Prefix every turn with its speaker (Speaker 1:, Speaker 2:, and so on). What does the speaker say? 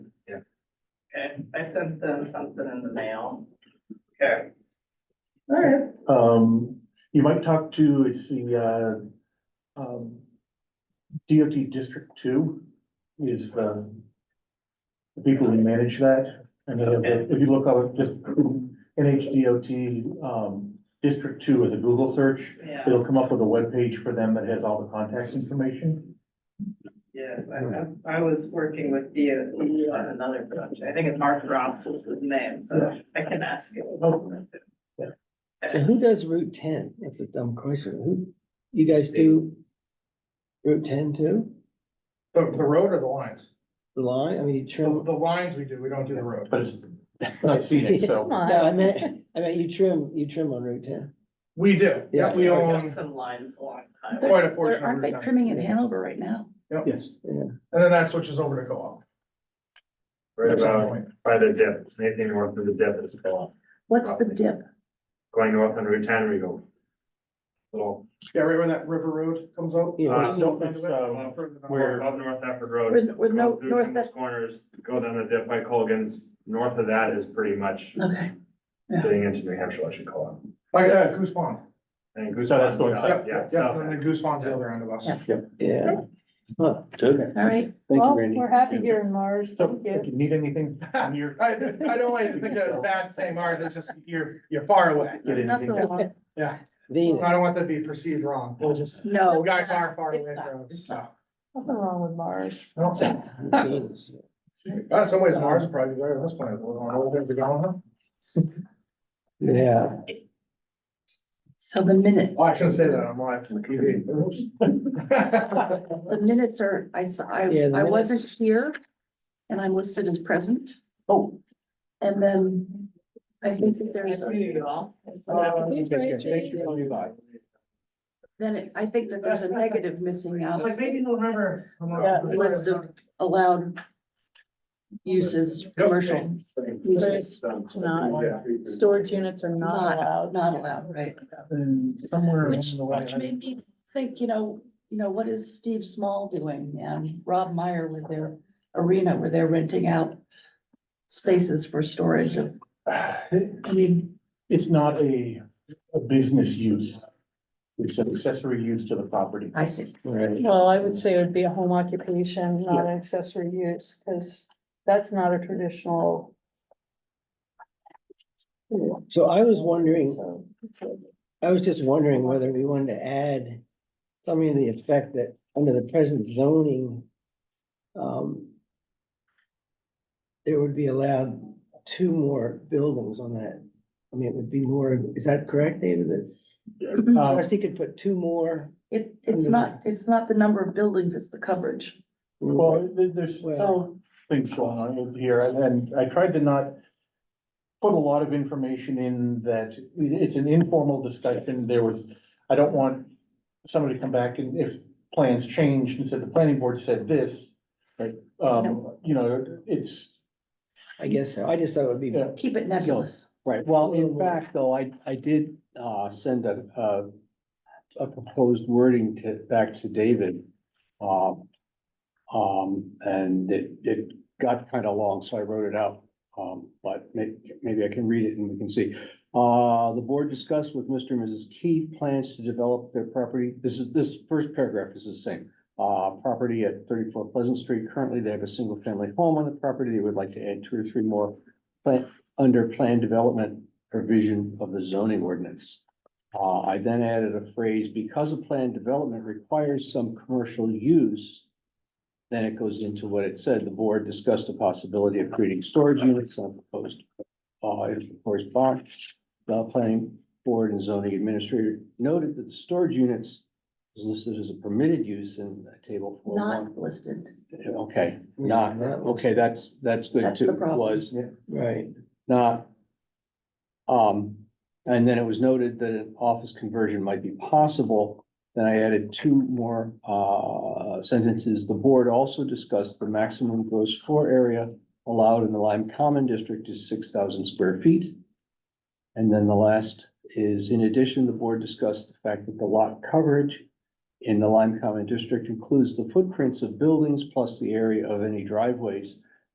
Speaker 1: I sent them something in the mail. Okay. All right.
Speaker 2: Um, you might talk to, it's the, uh, um, DOT District Two is the the people who manage that. And then if if you look up, just NHDOT, um, District Two is a Google search.
Speaker 1: Yeah,
Speaker 2: It'll come up with a webpage for them that has all the contact information.
Speaker 1: yes, I, I, I was working with DOT on another project. I think it's Mark Ross was his name, so I can ask him.
Speaker 3: And who does Route ten? That's a dumb question. Who, you guys do Route ten too?
Speaker 4: The, the road or the lines?
Speaker 3: The line? I mean, you
Speaker 4: The,
Speaker 3: trim.
Speaker 4: the lines we do, we don't do the road.
Speaker 2: But it's not scenic, so.
Speaker 3: No, I meant, I meant you trim, you trim on Route ten.
Speaker 4: We do, yeah,
Speaker 3: Yeah.
Speaker 4: we
Speaker 1: got
Speaker 4: own
Speaker 1: Some lines a long time.
Speaker 4: quite a
Speaker 5: Or
Speaker 4: portion. of
Speaker 5: aren't they
Speaker 4: Route 9.
Speaker 5: trimming in Hanover right now?
Speaker 2: Yes.
Speaker 4: And then that switches over to co-op
Speaker 6: Right
Speaker 4: at some
Speaker 6: about
Speaker 4: point.
Speaker 6: by the dip, anything north of the dip is called,
Speaker 5: What's the dip?
Speaker 6: going north on Route ten, we go. Little,
Speaker 4: Yeah, right where that river road comes out.
Speaker 3: You know,
Speaker 6: Uh,
Speaker 4: Don't think
Speaker 2: it's,
Speaker 4: about it.
Speaker 6: um,
Speaker 4: Further than-
Speaker 2: where-
Speaker 6: above North Stafford
Speaker 5: With,
Speaker 6: Road.
Speaker 5: with
Speaker 6: go
Speaker 5: no,
Speaker 6: through
Speaker 5: north,
Speaker 6: those Corners, go down the dip by Colgan's, north of that is pretty much
Speaker 5: okay, yeah.
Speaker 6: getting into New Hampshire, I should call it.
Speaker 4: Like that, Goose Pond.
Speaker 6: And Goose
Speaker 2: So that's
Speaker 6: Pond's
Speaker 2: going
Speaker 4: Yep,
Speaker 6: south, Oh, yeah,
Speaker 4: yep, yep, and
Speaker 6: south.
Speaker 4: then the Goose Pond's the other end of us.
Speaker 5: Yeah.
Speaker 3: Yeah. Huh.
Speaker 5: all right.
Speaker 7: Well, we're happy here in Mars,
Speaker 2: So
Speaker 7: thank
Speaker 2: if
Speaker 7: you.
Speaker 2: you need anything,
Speaker 4: I,
Speaker 2: near,
Speaker 4: I don't want you to think that it's bad saying ours, it's just you're, you're far away.
Speaker 2: get
Speaker 5: Nothing
Speaker 2: anything.
Speaker 5: long.
Speaker 4: Yeah,
Speaker 3: Venus.
Speaker 4: I don't want that to be perceived wrong. We'll just,
Speaker 5: No.
Speaker 4: you guys are far
Speaker 5: It's
Speaker 4: away
Speaker 5: not.
Speaker 4: from us, so.
Speaker 7: Nothing wrong with Mars.
Speaker 4: I don't see-
Speaker 3: Venus.
Speaker 4: In some ways, Mars would probably be better than this planet. We're going over there, we're going, huh?
Speaker 3: Yeah,
Speaker 5: So the minutes,
Speaker 4: Oh, I shouldn't say that, I'm live on TV.
Speaker 5: the minutes are, I saw, I,
Speaker 3: Yeah, the
Speaker 5: I wasn't
Speaker 3: minutes.
Speaker 5: here and I'm listed as present.
Speaker 4: Oh.
Speaker 5: And then I think that there's, a-
Speaker 1: you all.
Speaker 5: then it- I think that there's a negative missing out,
Speaker 4: Like, maybe he'll remember.
Speaker 7: Yeah,
Speaker 5: list of allowed uses, commercial uses,
Speaker 7: It's not,
Speaker 4: Oh, yeah.
Speaker 7: storage units are not
Speaker 5: Not-
Speaker 7: allowed.
Speaker 5: not allowed, right?
Speaker 4: And somewhere along
Speaker 5: Which,
Speaker 4: the way,
Speaker 5: which
Speaker 4: I-
Speaker 5: made me think, you know, you know, what is Steve Small doing and Rob Meyer with their arena where they're renting out spaces for storage of, I mean,
Speaker 2: It's not a, a business use. It's an accessory use to the property.
Speaker 5: I see.
Speaker 3: right.
Speaker 7: Well, I would say it would be a home occupation, not an accessory use, because that's not a traditional.
Speaker 3: So I was wondering,
Speaker 7: So, it's a-
Speaker 3: I was just wondering whether we wanted to add something to the effect that under the present zoning, um, there would be allowed two more buildings on that. I mean, it would be more, is that correct, David? That-
Speaker 2: Um,
Speaker 3: Or he could put two more?
Speaker 5: It, it's not, it's not the number of buildings, it's the coverage.
Speaker 2: Well, there- there's
Speaker 3: Well-
Speaker 2: things going on over here, and- and I tried to not put a lot of information in that, it's an informal discussion, there was, I don't want somebody to come back and if plans changed and said, the planning board said this, like, um, you know, it's,
Speaker 3: I guess so. I just thought it would be,
Speaker 2: Yeah.
Speaker 5: Keep it nebulous.
Speaker 8: Right, well,
Speaker 3: Mm.
Speaker 8: in fact, though, I, I did, uh, send a, a, a proposed wording to, back to David. Um, um, and it, it got kind of long, so I wrote it out, um, but may, maybe I can read it and we can see. Uh, the board discussed with Mr. and Mrs. Keith plans to develop their property, this is, this first paragraph is the same. Uh, property at thirty-four Pleasant Street, currently they have a single-family home on the property, they would like to add two or three more plant, under plan development provision of the zoning ordinance. Uh, I then added a phrase, because a plan development requires some commercial use. Then it goes into what it said, the board discussed the possibility of creating storage units on proposed, uh, if proposed barn. The planning board and zoning administrator noted that the storage units is listed as a permitted use in table four
Speaker 5: Not listed.
Speaker 8: Okay, not, okay, that's, that's good
Speaker 5: That's the
Speaker 8: too,
Speaker 5: problem.
Speaker 8: was
Speaker 3: right.
Speaker 8: not. Um, and then it was noted that an office conversion might be possible. Then I added two more, uh, sentences. The board also discussed the maximum gross floor area allowed in the Lime Common District is six thousand square feet. And then the last is, in addition, the board discussed the fact that the lot coverage in the Lime Common District includes the footprints of buildings plus the area of any driveways